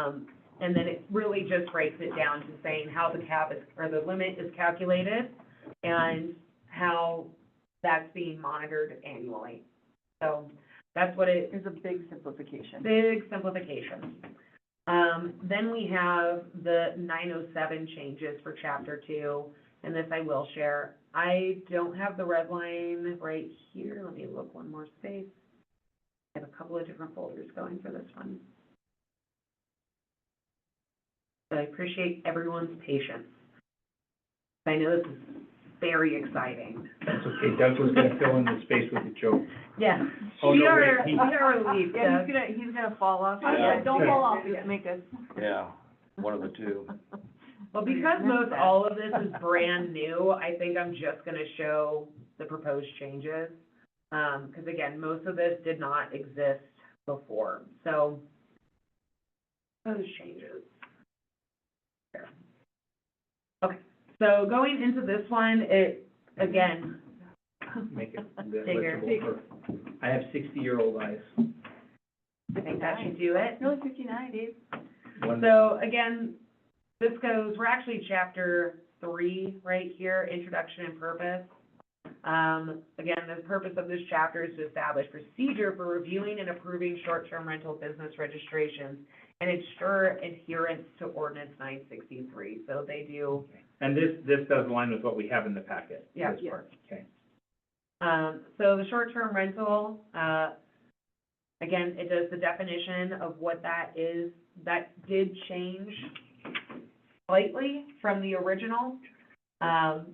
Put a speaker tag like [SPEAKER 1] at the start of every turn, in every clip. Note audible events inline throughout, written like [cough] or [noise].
[SPEAKER 1] Um, and then it really just breaks it down to saying how the cap is, or the limit is calculated and how that's being monitored annually. So that's what it,
[SPEAKER 2] It's a big simplification.
[SPEAKER 1] Big simplification. Um, then we have the nine oh seven changes for chapter two, and this I will share. I don't have the red line right here, let me look one more space. I have a couple of different folders going for this one. So I appreciate everyone's patience. I know this is very exciting.
[SPEAKER 3] That's okay, Doug was gonna fill in the space with a joke.
[SPEAKER 1] Yeah,
[SPEAKER 3] Oh,
[SPEAKER 1] we
[SPEAKER 3] no, wait,
[SPEAKER 1] are,
[SPEAKER 3] he-
[SPEAKER 1] we are relieved,
[SPEAKER 2] Yeah,
[SPEAKER 1] Doug.
[SPEAKER 2] he's gonna, he's gonna fall off.
[SPEAKER 3] Yeah.
[SPEAKER 2] Yeah, Don't fall off,
[SPEAKER 1] Yeah.
[SPEAKER 2] just make us.
[SPEAKER 4] Yeah, one
[SPEAKER 2] [laughs]
[SPEAKER 4] of the two.
[SPEAKER 1] Well, because most
[SPEAKER 2] Remember.
[SPEAKER 1] all of this is brand new, I think I'm just gonna show the proposed changes. Um, cause again, most of this did not exist before, so those changes. There. Okay, so going into this one, it, again, [laughs]
[SPEAKER 3] Make it
[SPEAKER 1] Bigger.
[SPEAKER 3] legible for, I have sixty-year-old eyes.
[SPEAKER 1] I think that should do it.
[SPEAKER 2] Really fifty-nine, Dave?
[SPEAKER 3] One-
[SPEAKER 1] So again, this goes, we're actually chapter three right here, introduction and purpose. Um, again, the purpose of this chapter is to establish procedure for reviewing and approving short-term rental business registrations and ensure adherence to ordinance nine sixty-three. So they do,
[SPEAKER 3] And this, this does align with what we have in the packet,
[SPEAKER 1] Yeah.
[SPEAKER 3] this
[SPEAKER 2] Yeah.
[SPEAKER 3] part, okay.
[SPEAKER 1] um, so the short-term rental, uh, again, it does the definition of what that is. That did change slightly from the original. Um,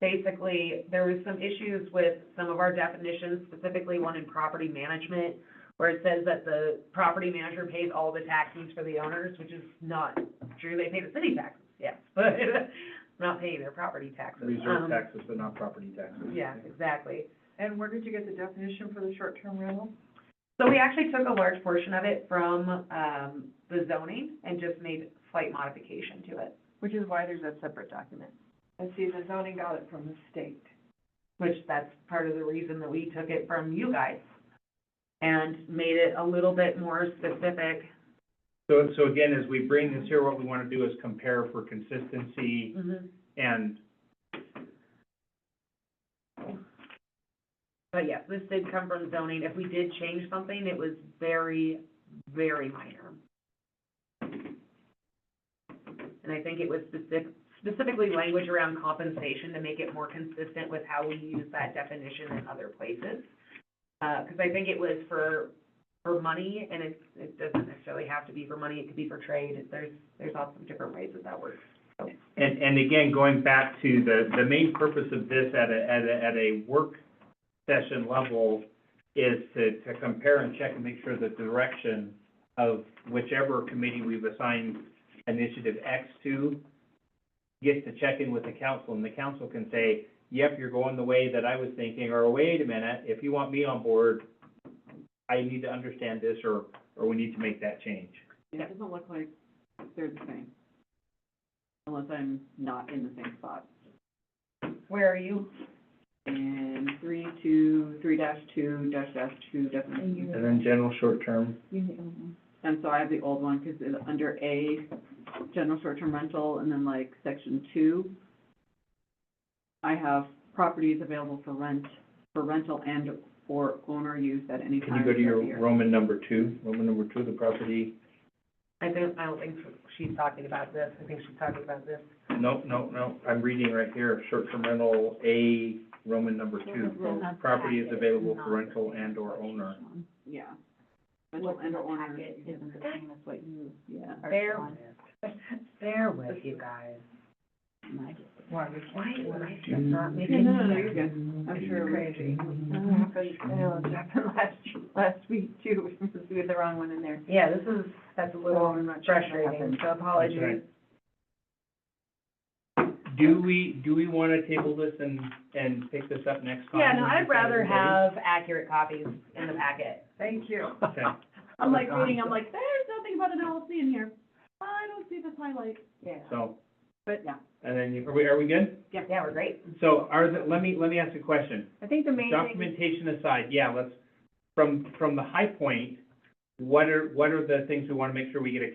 [SPEAKER 1] basically, there was some issues with some of our definitions, specifically one in property management, where it says that the property manager pays all the taxes for the owners, which is not true. They pay the city taxes, yes, [laughs] but not paying their property taxes.
[SPEAKER 3] Reserve
[SPEAKER 1] Um,
[SPEAKER 3] taxes, but not property taxes.
[SPEAKER 1] Yeah, exactly.
[SPEAKER 2] And where did you get the definition for the short-term rental?
[SPEAKER 1] So we actually took a large portion of it from, um, the zoning and just made slight modification to it,
[SPEAKER 2] Which is why there's a separate document. I see, the zoning got it from the state.
[SPEAKER 1] which that's part of the reason that we took it from you guys and made it a little bit more specific.
[SPEAKER 3] So, so again, as we bring this here, what we wanna do is compare for consistency
[SPEAKER 2] Mm-hmm.
[SPEAKER 3] and,
[SPEAKER 1] But yes, this did come from zoning. If we did change something, it was very, very minor. And I think it was specific, specifically language around compensation to make it more consistent with how we use that definition in other places. Uh, cause I think it was for, for money and it, it doesn't necessarily have to be for money, it could be for trade. There's, there's lots of different ways that that works.
[SPEAKER 3] and, and again, going back to the, the main purpose of this at a, at a, at a work session level is to, to compare and check and make sure that the direction of whichever committee we've assigned initiative X to gets to check in with the council, and the council can say, yep, you're going the way that I was thinking, or wait a minute, if you want me on board, I need to understand this, or, or we need to make that change.
[SPEAKER 1] Yeah, it
[SPEAKER 2] doesn't look like they're the same, unless I'm not in the same spot.
[SPEAKER 1] Where are you?
[SPEAKER 2] And three, two, three dash two, dash dash two, definition.
[SPEAKER 3] And then general short-term.
[SPEAKER 2] And so I have the old one, because it's under A, general short-term rental, and then like section two, I have properties available for rent, for rental and or owner use at any
[SPEAKER 3] Can
[SPEAKER 2] time
[SPEAKER 3] you go to
[SPEAKER 2] of
[SPEAKER 3] your
[SPEAKER 2] year.
[SPEAKER 3] Roman number two, Roman number two, the property?
[SPEAKER 1] I don't, I don't think she's talking about this. I think she's talking about this.
[SPEAKER 3] No, no, no, I'm reading right here, short-term rental, A, Roman number two. Property is available for rental and or owner.
[SPEAKER 2] Yeah. Rental and or owner. use at the-
[SPEAKER 1] same as what you
[SPEAKER 2] Yeah.
[SPEAKER 1] Bear [laughs] with, bear with you guys.
[SPEAKER 5] Why,
[SPEAKER 1] Why is my stuff not
[SPEAKER 2] Yeah,
[SPEAKER 1] making
[SPEAKER 2] no, no, no, you're
[SPEAKER 1] sense?
[SPEAKER 2] good. I'm sure.
[SPEAKER 5] Crazy.
[SPEAKER 2] That happened, Oh, I know, it happened last, last week too, [laughs] we had the wrong one in there.
[SPEAKER 1] Yeah, this is, that's a
[SPEAKER 2] Oh,
[SPEAKER 1] little
[SPEAKER 2] I'm not sure what
[SPEAKER 1] frustrating,
[SPEAKER 2] happened.
[SPEAKER 1] so apologies.
[SPEAKER 3] Do we, do we want to table this and, and pick this up next time?
[SPEAKER 1] Yeah, no, I'd rather have accurate copies in the packet.
[SPEAKER 2] Thank you.
[SPEAKER 1] [laughs]
[SPEAKER 3] Okay.
[SPEAKER 2] I'm like reading, I'm like, there's nothing about an LLC in here. I don't see this highlight. Yeah.
[SPEAKER 3] So,
[SPEAKER 2] But, yeah.
[SPEAKER 3] and then, you- are we, are we good?
[SPEAKER 1] Yeah, yeah, we're great.
[SPEAKER 3] So are the, let me, let me ask a question.
[SPEAKER 2] I think the main thing,
[SPEAKER 3] Documentation aside, yeah, let's, from, from the high point, what are, what are the things we want to make sure we get a